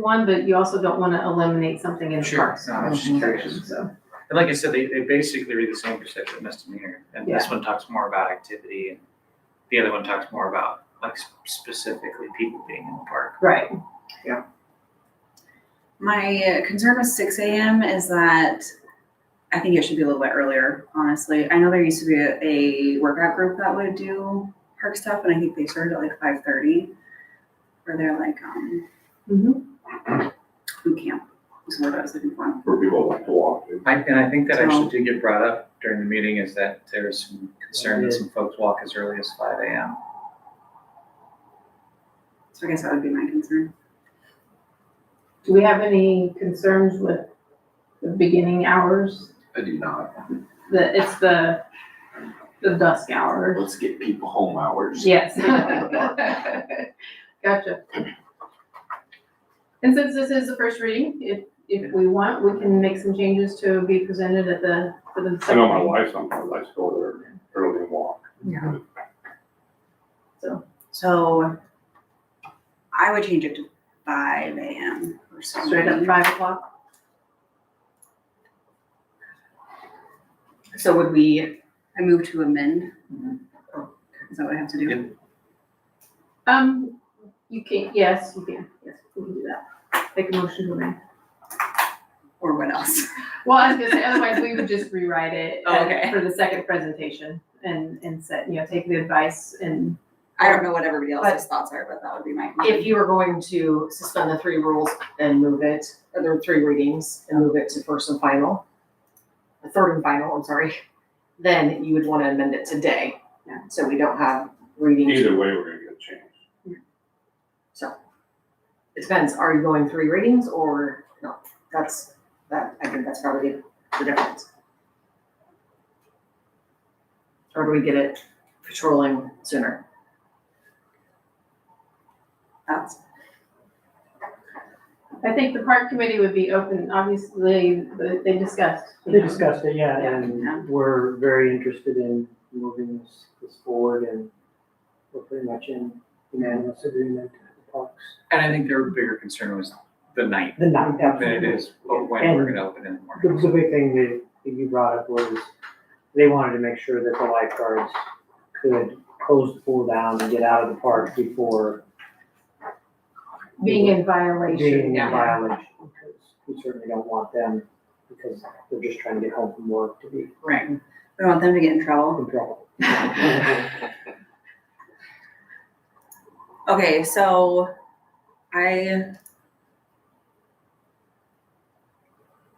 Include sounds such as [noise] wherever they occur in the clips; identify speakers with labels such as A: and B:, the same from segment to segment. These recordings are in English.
A: one, but you also don't want to eliminate something in the
B: Sure.
A: parks.
B: No, I was just curious.
A: So,
B: And like I said, they, they basically read the same for sexual misdemeanor, and this one talks more about activity, and the other one talks more about like s- specifically people being in the park.
A: right,
C: My uh, concern with six AM is that I think it should be a little bit earlier, honestly. I know there used to be a, a workout group that would do park stuff and I think they started at like five thirty. Where they're like, um,
A: Mm-hmm.
C: boot camp is what I was looking for.
D: for people like to walk to.
B: I, and I think that actually did get brought up during the meeting is that there's some concern that some folks walk as early as five AM.
C: So I guess that would be my concern.
A: do we have any concerns with the beginning hours?
D: I do not.
A: The, it's the, the dusk hours.
D: Let's get people home hours.
A: [laughs] Yes. Gotcha. And since this is the first reading, if, if we want, we can make some changes to be presented at the, for the
D: I
A: second
D: know my
A: reading.
D: wife sometimes likes to go there early and walk.
C: Yeah.
A: So.
C: So I would change it to five AM or something.
A: Straight up five o'clock.
C: So would we, Mm-hmm. I move to amend?
B: Mhm.
C: Is that what I have to do?
B: Yeah.
A: Um, you can, yes, you can, yes, we can do that. Make a motion to amend.
C: Or what else?
A: Well, I was gonna say, otherwise we would just rewrite it
C: Oh,
A: uh,
C: okay.
A: for the second presentation and, and set, you know, take the advice and,
C: I don't know what everybody else's thoughts are, but that would be my.
E: If you were going to suspend the three rules and move it, or the three readings and move it to first and final, the third and final, I'm sorry, then you would want to amend it today.
A: Yeah.
E: So we don't have readings.
D: Either way, we're gonna get a change.
E: So it depends, are you going three readings or no? That's, that, I think that's probably the difference. Or do we get it patrolling sooner?
C: That's,
A: I think the park committee would be open, obviously, but they discussed. you
F: They
A: know.
F: discussed it, yeah,
A: Yeah.
C: Yeah.
F: and we're very interested in moving this, this forward and we're pretty much in unanimous agreement with the parks.
B: And I think their bigger concern was the night,
F: The night,
B: than it
F: absolutely.
B: is when we're gonna open in the
F: The,
B: morning.
F: the big thing that that you brought up was they wanted to make sure that the lifeguards could close the pool down and get out of the park before
A: Being in
F: being
A: violation,
F: in
E: yeah.
F: violation. Because we certainly don't want them, because they're just trying to get home from work to be
C: right. We don't want them to get in trouble.
F: in trouble.
C: Okay, so I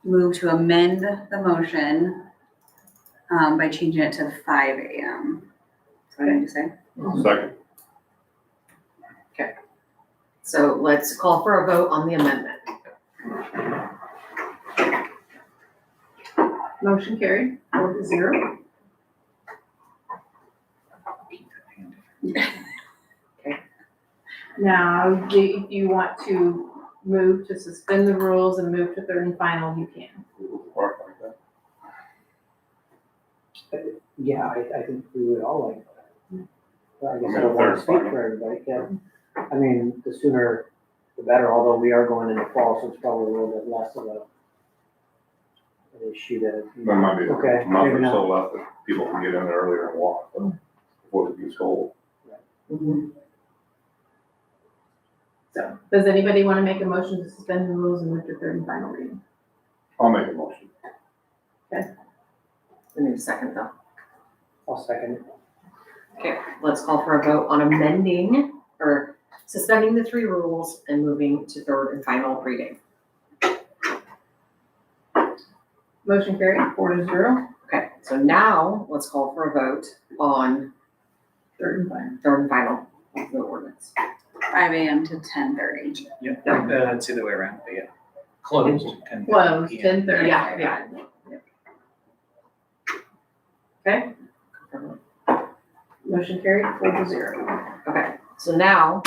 C: move to amend the motion um, by changing it to five AM. That's what I need to say.
D: Second,
E: So let's call for a vote on the amendment.
A: motion carried, four to zero. Now, do you want to move to suspend the rules and move to third and final, you can.
D: park like that.
F: Yeah, I, I think we would all like that. But I guess I
D: Yeah,
F: don't wanna
D: fair,
F: speak
D: fine.
F: for everybody, yeah. I mean, the sooner the better, although we are going into fall, so it's probably a little bit less of a an issue that.
D: There might be
F: Okay,
D: a month
F: maybe
D: or
F: not.
D: so left that people can get in earlier and walk, but before it gets cold.
A: So, does anybody want to make a motion to suspend the rules and move to third and final reading?
D: I'll make a motion.
E: I need a second though.
F: I'll second it.
E: Okay, let's call for a vote on amending or suspending the three rules and moving to third and final reading.
A: Motion carried, four to zero,
E: Okay, so now let's call for a vote on
A: third and final.
E: third and final of the ordinance.
C: Five AM to ten thirty.
B: Yeah, uh, it's the other way around, but yeah. Closed. and-
A: Close,
B: Yeah.
A: ten thirty.
E: Yeah, yeah.
A: Okay. Motion carried, four to zero.
E: Okay, so now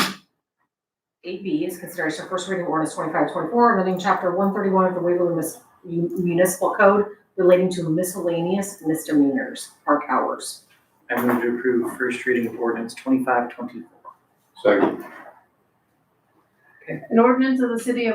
E: AB is consideration of first reading ordinance twenty-five twenty-four, amending chapter one thirty-one of the Waverly Mis- Municipal Code relating to miscellaneous misdemeanors, park hours.
B: I move to approve first reading of ordinance twenty-five twenty-four.
D: Second.
A: An ordinance of the city of